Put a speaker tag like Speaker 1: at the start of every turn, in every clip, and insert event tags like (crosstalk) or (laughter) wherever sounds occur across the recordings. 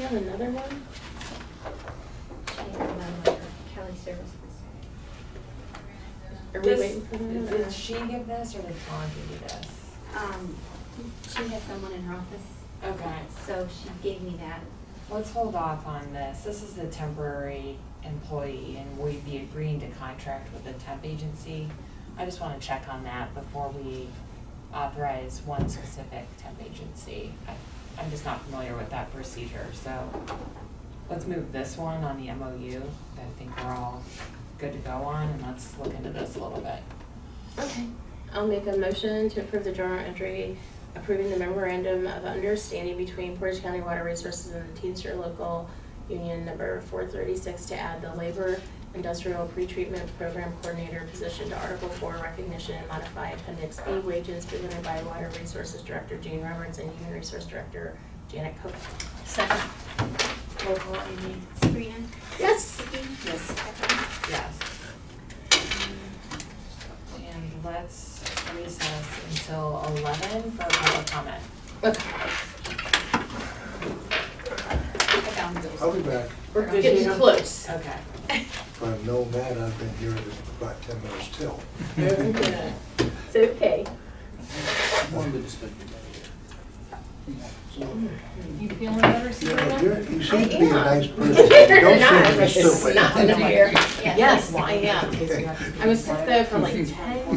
Speaker 1: have another one?
Speaker 2: She has none with her Kelly Services.
Speaker 1: Are we
Speaker 3: Does-
Speaker 1: waiting for that? or-
Speaker 3: Did she give this or did Dawn give you this?
Speaker 2: Um, she has someone in her office,
Speaker 3: Okay,
Speaker 2: so she gave me that.
Speaker 3: let's hold off on this. This is the temporary employee and we'd be agreeing to contract with the temp agency. I just wanna check on that before we authorize one specific temp agency. I- I'm just not familiar with that procedure, so let's move this one on the MOU that I think we're all good to go on and let's look into this a little bit.
Speaker 1: Okay, I'll make a motion to approve the journal entry approving the memorandum of understanding between Portage County Water Resources and the Teamster Local Union number four thirty-six to add the labor industrial pretreatment program coordinator position to Article Four recognition and modify appendix B wages presented by Water Resources Director Gene Roberts and Human Resource Director Janet Cook.
Speaker 2: Second. Roll call, Amy. Sabrina?
Speaker 1: Yes.
Speaker 2: Vicky?
Speaker 3: Yes.
Speaker 2: Kathleen?
Speaker 3: Yes. And let's recess until eleven for public comment.
Speaker 1: Okay,
Speaker 2: I found those.
Speaker 4: I'll be back.
Speaker 1: we're
Speaker 3: Did
Speaker 1: getting
Speaker 3: you-
Speaker 1: close.
Speaker 3: Okay.
Speaker 4: If I've known that, I've been here about ten minutes till.
Speaker 1: (laughs) It's okay.
Speaker 5: You feeling better,
Speaker 4: Yeah,
Speaker 5: Sabrina?
Speaker 4: but you're- You seem to be
Speaker 1: am.
Speaker 5: (laughs)
Speaker 4: a nice person. Don't say you're
Speaker 1: You're
Speaker 4: (laughs)
Speaker 1: not
Speaker 4: stupid.
Speaker 1: a liar.
Speaker 2: Yes.
Speaker 1: Yes, I am. I was sick though for like ten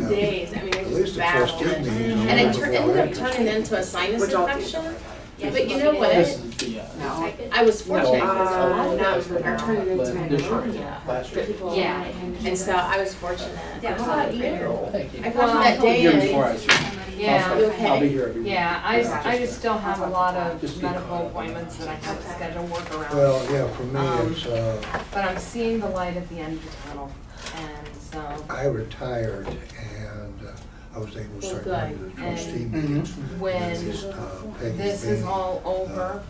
Speaker 4: Yeah.
Speaker 1: days, I mean, I
Speaker 4: At
Speaker 1: just
Speaker 4: least the
Speaker 1: battled
Speaker 4: trustee
Speaker 1: it.
Speaker 4: meeting.
Speaker 1: And it tur- ended up turning into a sinus infection, but you know what?
Speaker 6: uh,
Speaker 2: Type it.
Speaker 1: I was fortunate, because a lot
Speaker 3: Uh,
Speaker 1: of
Speaker 3: not
Speaker 1: those
Speaker 3: for
Speaker 1: are
Speaker 3: now.
Speaker 1: turning into
Speaker 6: But they're trying.
Speaker 1: pneumonia.
Speaker 6: Last
Speaker 1: for
Speaker 6: year.
Speaker 1: people.
Speaker 2: Yeah. and-
Speaker 1: And so I was fortunate.
Speaker 2: Yeah,
Speaker 1: How
Speaker 2: well,
Speaker 1: about you?
Speaker 6: Thank you.
Speaker 1: I
Speaker 6: I'll
Speaker 1: called you that day
Speaker 6: be here
Speaker 1: and.
Speaker 6: before I see
Speaker 5: Yeah.
Speaker 1: You
Speaker 6: I'll be
Speaker 1: okay?
Speaker 6: here every week.
Speaker 5: Yeah, I,
Speaker 6: Yeah,
Speaker 5: I just still have a lot of
Speaker 6: Just be
Speaker 5: medical
Speaker 6: quiet.
Speaker 5: appointments that I have to
Speaker 1: Okay.
Speaker 5: schedule work around,
Speaker 4: Well, yeah, for
Speaker 5: Um,
Speaker 4: me, it's, uh,
Speaker 5: but I'm seeing the light at the end of the tunnel, and so
Speaker 4: I retired and uh, I was able to start
Speaker 1: Well,
Speaker 4: going to the
Speaker 5: good.
Speaker 4: trustee
Speaker 5: And
Speaker 6: Mhm.
Speaker 4: meetings.
Speaker 5: when
Speaker 4: It's, uh, Peggy
Speaker 5: this is
Speaker 4: Bean.
Speaker 5: all over,
Speaker 4: uh, You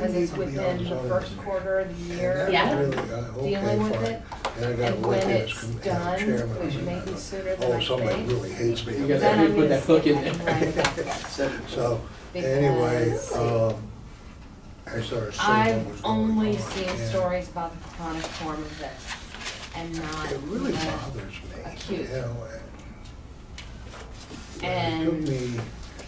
Speaker 5: because it's
Speaker 4: need to be on
Speaker 5: within the
Speaker 4: zoning
Speaker 5: first
Speaker 4: committee.
Speaker 5: quarter of the
Speaker 4: And
Speaker 5: year.
Speaker 4: that
Speaker 1: Yeah.
Speaker 4: really got- okay,
Speaker 5: dealing with
Speaker 4: fine.
Speaker 5: it,
Speaker 4: Then I got
Speaker 5: and
Speaker 4: to
Speaker 5: when
Speaker 4: look at
Speaker 5: it's
Speaker 4: this com-
Speaker 5: done,
Speaker 4: as chairman.
Speaker 5: which
Speaker 4: and
Speaker 5: may
Speaker 4: I
Speaker 5: be
Speaker 4: thought,
Speaker 5: sooner than I
Speaker 4: Oh, somebody
Speaker 5: think.
Speaker 4: really hates me.
Speaker 6: You
Speaker 4: over
Speaker 6: guys
Speaker 4: there."
Speaker 5: Then I'm
Speaker 6: put
Speaker 5: gonna
Speaker 6: that
Speaker 5: see
Speaker 6: hook in
Speaker 5: if I can
Speaker 6: there.
Speaker 5: line it back up.
Speaker 6: Seven.
Speaker 4: (laughs) So anyway,
Speaker 5: Because-
Speaker 4: um, I started seeing what was
Speaker 5: I've
Speaker 4: going on.
Speaker 5: only seen
Speaker 4: and
Speaker 5: stories about the chronic form of this, and not.
Speaker 4: It really
Speaker 5: the-
Speaker 4: bothers me, you
Speaker 5: acute.
Speaker 4: know. and- and It
Speaker 5: And-
Speaker 4: took me,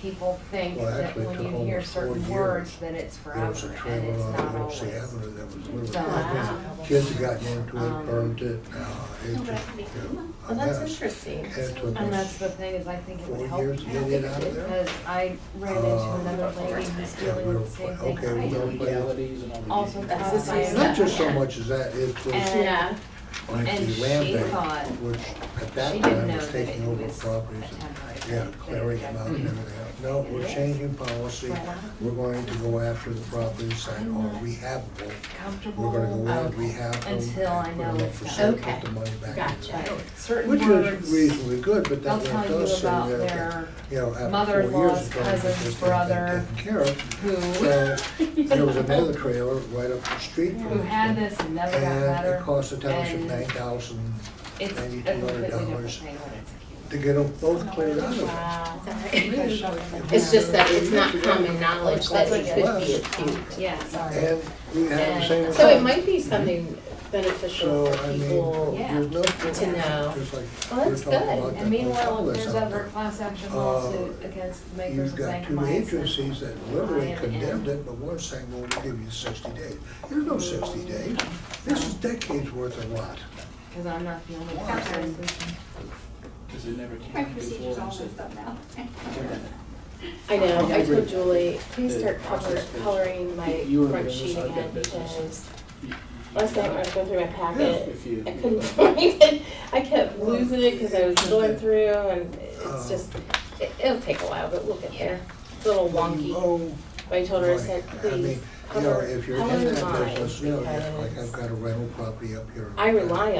Speaker 5: people think
Speaker 4: Well,
Speaker 5: that
Speaker 4: actually, it
Speaker 5: when
Speaker 4: took
Speaker 5: you hear
Speaker 4: almost four
Speaker 5: certain
Speaker 4: years.
Speaker 5: words, that it's
Speaker 4: there was a
Speaker 5: forever, and
Speaker 4: trailer
Speaker 5: it's
Speaker 4: on
Speaker 5: not
Speaker 4: Old
Speaker 5: always.
Speaker 4: Avenue that was literally,
Speaker 5: done.
Speaker 4: broken. kids had gotten into
Speaker 5: Um,
Speaker 4: it, burned it, uh, it
Speaker 2: No, but I
Speaker 4: just,
Speaker 2: can make
Speaker 4: you know,
Speaker 2: them.
Speaker 4: a
Speaker 1: Well, Oh, that's
Speaker 4: mess.
Speaker 1: interesting.
Speaker 4: And it took
Speaker 5: And that's
Speaker 4: us
Speaker 5: the thing, is I think it
Speaker 4: four
Speaker 5: would help,
Speaker 4: years to get it out of there.
Speaker 5: because I ran into
Speaker 4: Uh,
Speaker 5: another lady who's
Speaker 4: yeah,
Speaker 5: dealing with the
Speaker 4: we're-
Speaker 5: same thing
Speaker 4: okay,
Speaker 5: I
Speaker 4: we're
Speaker 5: am.
Speaker 4: gonna-
Speaker 6: Legalities and all the.
Speaker 5: Also uh,
Speaker 1: That's the
Speaker 5: caused by
Speaker 1: same
Speaker 4: Not
Speaker 1: stuff.
Speaker 4: just so much as that, it was.
Speaker 5: And-
Speaker 1: Yeah,
Speaker 4: like
Speaker 5: And
Speaker 4: the
Speaker 5: she
Speaker 4: land bank,
Speaker 5: thought-
Speaker 4: which at
Speaker 5: she
Speaker 4: that
Speaker 5: didn't
Speaker 4: time
Speaker 5: know
Speaker 4: was
Speaker 5: that
Speaker 4: taking
Speaker 5: it
Speaker 4: over
Speaker 5: was
Speaker 4: properties
Speaker 5: a temporary
Speaker 4: and, yeah,
Speaker 5: thing,
Speaker 4: clearing
Speaker 5: that
Speaker 4: them out
Speaker 5: it
Speaker 4: and everything else. No, we're changing policy, we're going to go after the properties that are rehabable. We're
Speaker 5: Comfortable,
Speaker 4: gonna go in,
Speaker 5: um,
Speaker 4: rehab them, and
Speaker 5: until I
Speaker 4: put
Speaker 5: know
Speaker 4: them up
Speaker 5: it's
Speaker 4: for
Speaker 5: done.
Speaker 4: sale,
Speaker 1: Okay.
Speaker 4: put the money back into the
Speaker 1: Gotcha.
Speaker 4: building.
Speaker 5: certain
Speaker 4: Which is
Speaker 5: words,
Speaker 4: reasonably good, but
Speaker 5: they'll
Speaker 4: that
Speaker 5: tell
Speaker 4: one
Speaker 5: you
Speaker 4: does say
Speaker 5: about
Speaker 4: there, that,
Speaker 5: their
Speaker 4: you know, after four years
Speaker 5: mother-in-law's
Speaker 4: ago, this
Speaker 5: cousin's
Speaker 4: thing
Speaker 5: brother
Speaker 4: been taken care of.
Speaker 5: who,
Speaker 4: So, there was another trailer right up the street from
Speaker 5: who had
Speaker 4: this
Speaker 5: this and never got
Speaker 4: and it
Speaker 5: better.
Speaker 4: cost the township
Speaker 5: and
Speaker 4: nine thousand
Speaker 5: It's a
Speaker 4: maybe
Speaker 5: completely different
Speaker 4: $200
Speaker 5: thing when it's acute.
Speaker 4: to get them both cleared out of there.
Speaker 1: wow.
Speaker 5: Because shoving them
Speaker 1: It's just
Speaker 5: down.
Speaker 1: that it's not common knowledge that it could be acute.
Speaker 5: Yeah, sorry.
Speaker 4: And we have the same.
Speaker 1: So it
Speaker 4: result.
Speaker 1: might be something beneficial
Speaker 4: So,
Speaker 1: for
Speaker 4: I mean,
Speaker 1: people.
Speaker 4: there's
Speaker 1: to know.
Speaker 4: no. Just like
Speaker 1: Well,
Speaker 4: we're
Speaker 1: that's
Speaker 4: talking
Speaker 1: good.
Speaker 4: about that
Speaker 5: And meanwhile, if
Speaker 4: Gonzales
Speaker 5: there's
Speaker 4: out
Speaker 5: ever
Speaker 4: there.
Speaker 5: a class action
Speaker 4: Uh,
Speaker 5: lawsuit against the makers
Speaker 4: You've
Speaker 5: of
Speaker 4: got two
Speaker 5: vancomycin.
Speaker 4: agencies that literally
Speaker 5: Ryan and-
Speaker 4: condemned it, but one's saying, well, we'll give you sixty days. There's no sixty days. This is decades worth of rot.
Speaker 5: Cause I'm not the only
Speaker 4: Wow.
Speaker 5: person.
Speaker 6: Because it never
Speaker 2: My
Speaker 6: came
Speaker 2: procedure's
Speaker 6: before.
Speaker 2: all messed up now.
Speaker 1: I know, I
Speaker 6: Yeah.
Speaker 1: told Julie, please
Speaker 6: The
Speaker 1: start color,
Speaker 6: process page.
Speaker 1: coloring my
Speaker 6: You were
Speaker 1: front
Speaker 6: business,
Speaker 1: sheet
Speaker 6: I've got
Speaker 1: again
Speaker 6: business.
Speaker 1: because last night when I was going through my packet,
Speaker 6: If you.
Speaker 1: I couldn't (laughs) find it. I kept losing it because I was going through and it's
Speaker 4: Oh.
Speaker 1: just, it- it'll take a while, but we'll get there. It's a little wonky.
Speaker 4: Oh,
Speaker 1: But I told her, I said,
Speaker 4: Right. I
Speaker 1: please
Speaker 4: mean, you know,
Speaker 1: color,
Speaker 4: if you're
Speaker 1: color
Speaker 4: in that
Speaker 1: mine
Speaker 4: business, you know, like I've
Speaker 1: because
Speaker 4: got a rental property up here.
Speaker 1: I rely